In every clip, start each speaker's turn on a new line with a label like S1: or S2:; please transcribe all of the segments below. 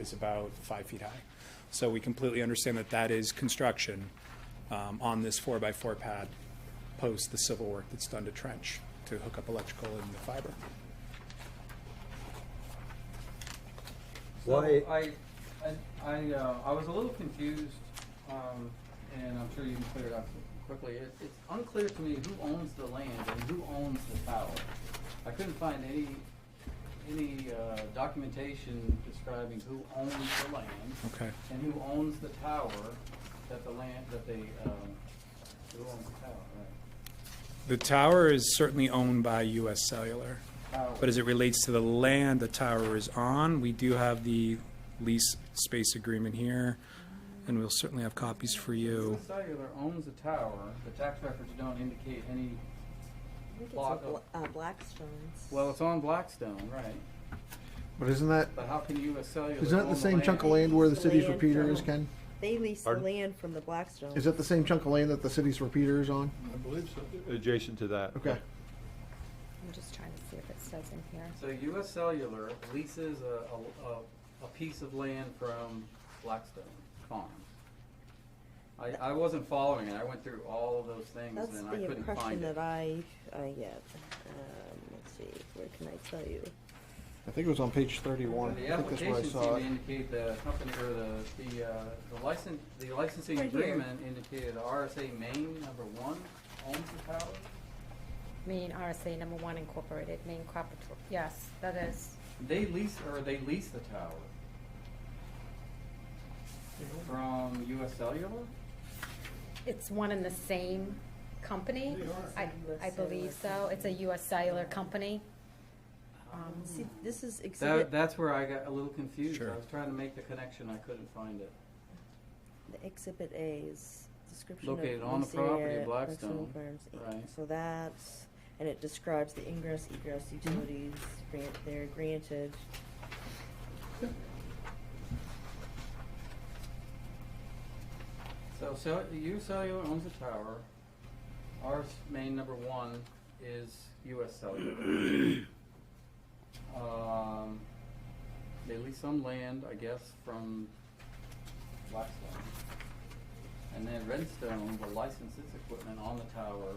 S1: is about five feet high. So we completely understand that that is construction um, on this four-by-four pad post the civil work that's done to trench to hook up electrical and the fiber.
S2: So
S3: Why-
S2: I, I, I, uh, I was a little confused, um, and I'm sure you can clear it up quickly. It, it's unclear to me who owns the land and who owns the tower. I couldn't find any, any, uh, documentation describing who owns the land
S1: Okay.
S2: and who owns the tower that the land, that they, um, who owns the tower, right?
S1: The tower is certainly owned by US Cellular,
S2: Tower.
S1: but as it relates to the land the tower is on, we do have the lease space agreement here, and we'll certainly have copies for you.
S2: Since Cellular owns the tower, the tax records don't indicate any,
S4: I think it's
S2: Block
S4: a
S2: of-
S4: bl- uh, Blackstone's.
S2: well, it's on Blackstone, right?
S5: But isn't that,
S2: But how can US Cellular?
S5: isn't that
S2: own
S5: the same chunk of
S2: land?
S5: land where the city's
S4: Land
S5: repeater is,
S4: from-
S5: Ken?
S4: They lease the
S3: Pardon?
S4: land from the Blackstones.
S5: Is that the same chunk of land that the city's repeater is on?
S3: I believe so. Adjacent to that.
S5: Okay.
S6: I'm just trying to see if it says in here.
S2: So US Cellular leases a, a, a, a piece of land from Blackstone Farms. I, I wasn't following it, I went through all of those things
S4: That's
S2: and I
S4: the
S2: couldn't
S4: impression
S2: find it.
S4: that I, I get. Um, let's see, where can I tell you?
S5: I think it was on page thirty-one.
S2: The
S5: I think that's where I
S2: application
S5: saw
S2: seemed to
S5: it.
S2: indicate the company, or the, the, uh, the license, the licensing
S4: Right here.
S2: agreement indicated RSA Maine number one owns the tower?
S6: Maine RSA number one incorporated, Maine Capital, yes, that is.
S2: They lease, or they lease the tower. From US Cellular?
S6: It's one and the same company?
S4: They
S6: I,
S4: are.
S6: I believe so. It's a US cellular company. Um,
S4: See, this is
S2: That,
S4: exhibit,
S2: that's where I got a little confused. I
S1: Sure.
S2: was trying to make the connection, I couldn't find it.
S4: the exhibit A's description of.
S2: Located on the
S4: lease
S2: property
S4: area,
S2: of Blackstone,
S4: Farms, Inc.
S2: right.
S4: So that's, and it describes the ingress, egress utilities, grant, they're granted.
S2: So, so U Cellular owns the tower. Our s- main number one is US Cellular. Um, they lease some land, I guess, from Blackstone. And then Redstone will license its equipment on the tower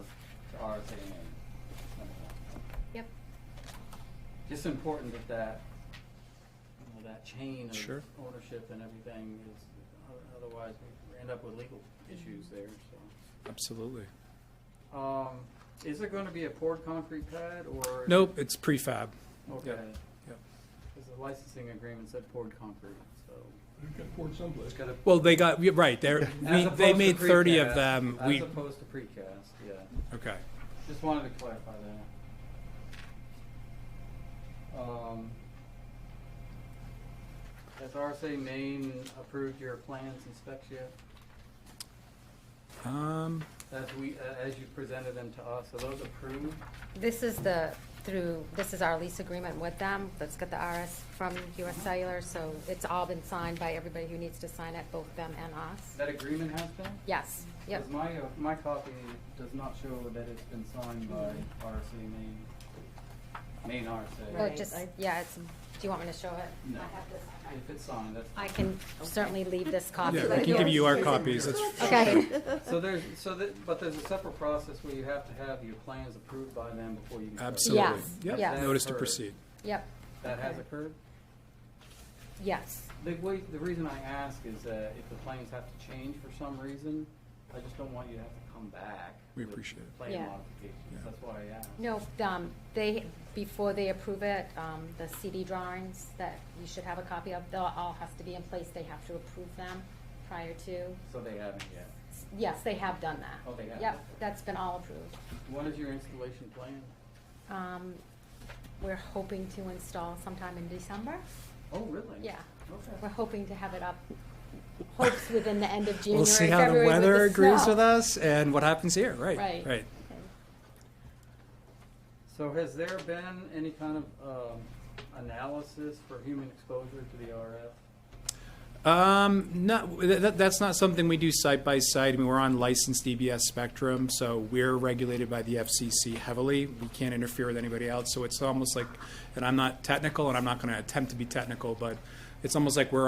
S2: to RSA Maine. number one.
S6: Yep.
S2: Just important that that, you know, that chain of
S1: Sure.
S2: ownership and everything is, o- otherwise we end up with legal issues there, so.
S1: Absolutely.
S2: Um, is there gonna be a poured concrete pad or?
S1: Nope, it's prefab.
S2: Okay.
S1: yep.
S2: Cause the licensing agreement said poured concrete, so.
S3: You can afford someplace.
S1: Well, they got, yeah, right, they're, we-
S2: As
S1: they
S2: opposed to
S1: made 30 of
S2: precast,
S1: them. We,
S2: As opposed to precast, yeah.
S1: okay.
S2: Just wanted to clarify that. Um, Has RSA Maine approved your plans and specs yet?
S1: Um,
S2: As we, uh, as you presented them to us, are those approved?
S6: This is the, through, this is our lease agreement with them, that's got the RS from US cellular, so it's all been signed by everybody who needs to sign it, both them and us.
S2: That agreement has been?
S6: Yes, yep.
S2: Because my, uh, my copy does not show that it's been signed by
S6: Mm-hmm.
S2: RSA Maine, Maine RSA.
S6: Well,
S4: Right,
S6: Oh, just,
S4: I-
S6: yeah, it's, do you want me to show it?
S2: No. If it's signed, that's.
S6: I can certainly leave this copy.
S1: Yeah,
S6: but
S1: I can give you our
S6: yours-
S1: copies. That's
S6: Okay.
S2: So there's, so that, but there's a separate process where you have to have your plans approved by them before you. can start.
S1: Absolutely.
S6: Yes,
S1: Yep,
S6: yes.
S1: notice to
S2: Heard.
S1: proceed.
S6: Yep,
S2: That has occurred?
S6: yes.
S2: The way, the reason I ask is that if the plans have to change for some reason, I just don't want you to have to come back.
S1: We
S2: with
S1: appreciate it.
S2: Plan
S6: Yeah.
S1: Yeah.
S2: modifications, that's why I asked.
S6: No, um, they, before they approve it, um, the CD drawings that you should have a copy of, they'll, all has to be in place, they have to approve them prior to.
S2: So they haven't yet.
S6: Yes, they have done that.
S2: Oh, they have?
S6: Yep, that's been all approved.
S2: What is your installation plan?
S6: Um, we're hoping to install sometime in December.
S2: Oh, really?
S6: Yeah. We're
S2: Okay.
S6: hoping to have it up, hopes within the end of January,
S1: We'll see how the
S6: February with
S1: weather agrees
S6: snow.
S1: with us and what happens here, right,
S6: Right.
S1: right.
S2: So has there been any kind of, um, analysis for human exposure to the RF?
S1: Um, not, that, that's not something we do site by site. I mean, we're on licensed DBS spectrum, so we're regulated by the FCC heavily. We can't interfere with anybody else, so it's almost like, and I'm not technical, and I'm not gonna attempt to be technical, but it's almost like we're